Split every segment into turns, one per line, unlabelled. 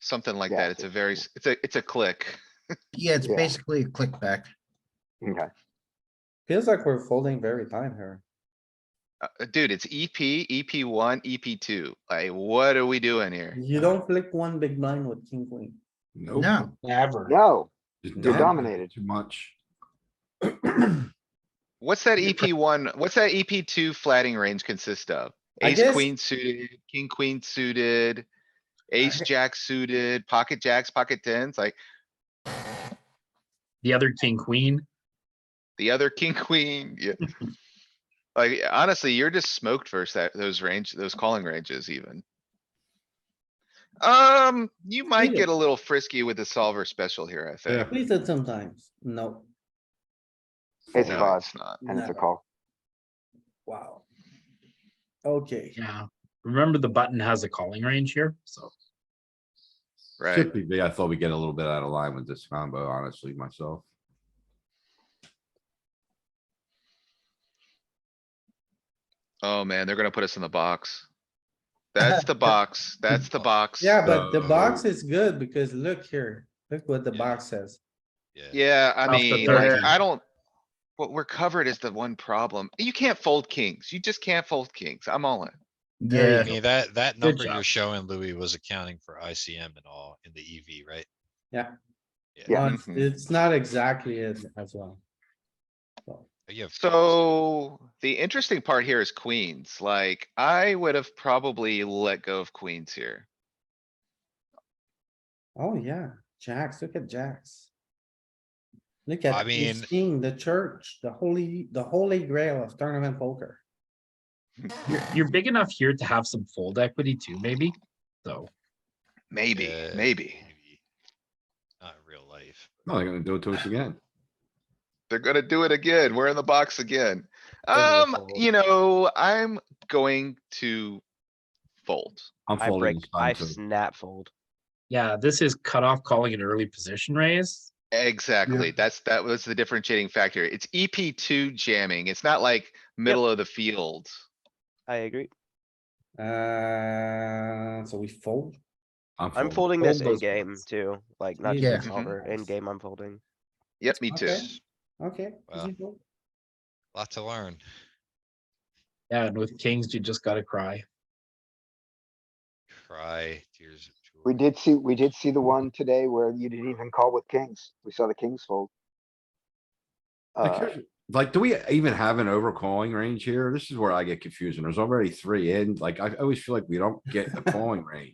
something like
Yeah,
that. It's a very, s- it's a, it's a click.
Yeah, it's
Yeah.
basically a click back.
Okay,
Feels like we're folding very time here.
Uh, uh, dude, it's EP, EP one, EP two. Like, what are we doing here?
You don't flick one big blind with king queen.
Nope.
No,
Never.
no,
just
you're
dominate
dominated.
Too much.
What's that
Yeah.
EP one, what's that EP two flatting range consist of?
I
Ace,
guess-
queen suited, king, queen suited, ace, jack suited, pocket jacks, pocket tens, like
The other king, queen.
the other king, queen, yeah. Like, honestly, you're just smoked versus that, those range, those calling ranges even. Um, you might
Really?
get a little frisky with the solver special here, I think.
We said sometimes, no,
It's
No,
five
it's not.
and it's a
Never.
call.
wow. Okay,
Yeah. Remember the button has a calling range here, so.
Right,
Should be, but I thought we get a little bit out of line with this combo, honestly, myself.
oh man, they're gonna put us in the box. That's the box, that's the box.
yeah, but the box
So-
is good because look here, look what the
Yeah.
box says.
Yeah, I
Off the
mean,
third
like,
hand.
I don't. What we're covered is the one problem. You can't fold kings. You just can't fold kings. I'm all in.
yeah,
I mean, that, that
Good
number
job.
you're showing Louis was accounting for ICM and all in the EV, right?
Yeah.
Uh, It's not exactly it as well.
You have four,
So the interesting part here is queens. Like, I would have probably let go of queens here.
Oh, yeah, jacks, look at jacks. Look at
I
ace
mean-
king, the church, the holy, the holy grail of tournament poker.
You're, you're big enough here to have some fold equity too, maybe, so.
Maybe,
uh,
E maybe.
Not in real life.
No, they're gonna do it to us again.
They're gonna do it again. We're in the box again.
gonna
Um, you know, I'm going to fold.
I'm
I break,
folding. this
I
time, too.
snap fold.
Yeah, this is cutoff calling an early position raise.
Exactly. That's, that was the differentiating factor. It's EP two jamming. It's not like middle of the field.
I agree.
Uh, so we fold.
I'm folding this in
those
game
ones. Mm-hmm.
too, like not
Yeah.
just in solver, in game I'm folding.
Yep, me too.
Okay. Okay.
Wow.
easy fold.
Lot to learn.
Yeah, and with kings, you just gotta cry.
Try tears of joy.
We did see, we did see the one today where you didn't even call with kings. We saw the kings fold.
Like,
Uh,
here's- Like, do we even have an overcalling range here? This is where I get confused. And There's already three in, like, I always feel like we don't get a calling range.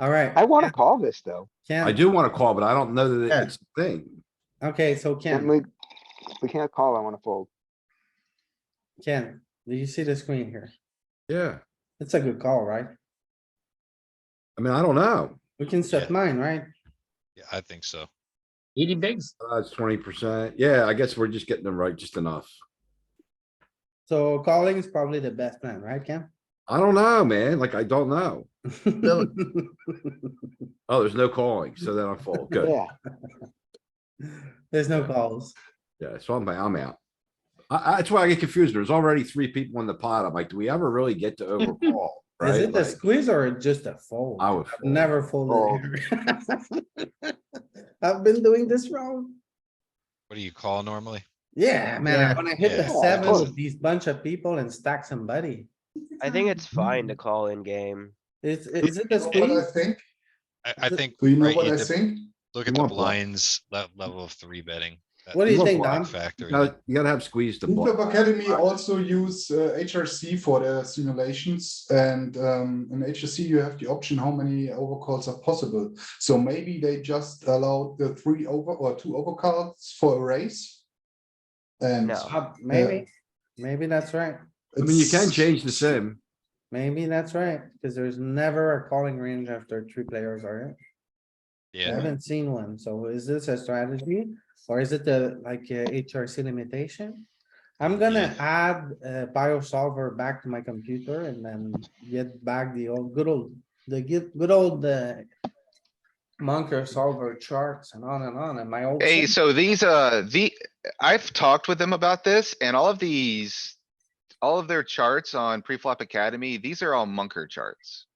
Alright,
I wanna call this though.
I
Ken,
do wanna call, but I don't know that
Yeah.
it's a thing.
okay, so
Can
Ken,
we, we can't call, I wanna fold.
Ken, do you see the screen here?
Yeah,
It's a good call, right?
I mean, I don't know.
We can set
Yeah.
mine, right?
Yeah, I think so.
Eighty bigs,
That's Uh, twenty percent. Yeah, I guess we're just getting them right just enough.
So calling is probably the best plan, right, Ken?
I don't know, man. Like, I don't know. Oh, there's no calling, so then I fold. Good.
Yeah,
There's no calls.
Yeah, so I'm, I'm out. I, I- that's why I get confused. There's already three people in the pot. I'm like, do we ever really get to overcall?
Is
Right?
it a
Like,
squeeze or just a fold?
I would
I've
fold.
Never folded here. I've been doing this wrong.
What do you call normally?
Yeah, man, I
Yeah.
wanna hit the
Yeah.
seven
Close.
with these bunch of people and stack somebody.
I think
Mm-hmm.
it's fine to call in game.
Is, is it a
What I
squeeze?
think,
I, I
Th-
think,
do you know
right,
what
you
I
def-
think?
look
You
at the
want block.
blinds, le- level of three betting. that-
What do you
that's
think,
a
Dom?
Factor.
You
in
gotta, you gotta have squeezed the
Blue Club
ball.
Academy also use uh, HRC for their simulations and um, in HRC you have the option how many overcalls are possible. So maybe they just allowed the three over or two overcalls for a race. And
No.
Uh, Maybe, maybe that's right.
I mean, you can
it's-
change the sim.
Maybe that's right, because there's never a calling range after three players are in. I
Yeah,
haven't seen one, so is this a strategy or is it the like uh, HRC limitation? I'm gonna add uh bio solver back to my computer and then get back the old good old, the good, good old uh Monker solver charts and on and on and my old.
Hey,
sim-
so these, uh, the, I've talked with them about this and all of these, all of their charts on Preflop Academy, these are all Munker charts.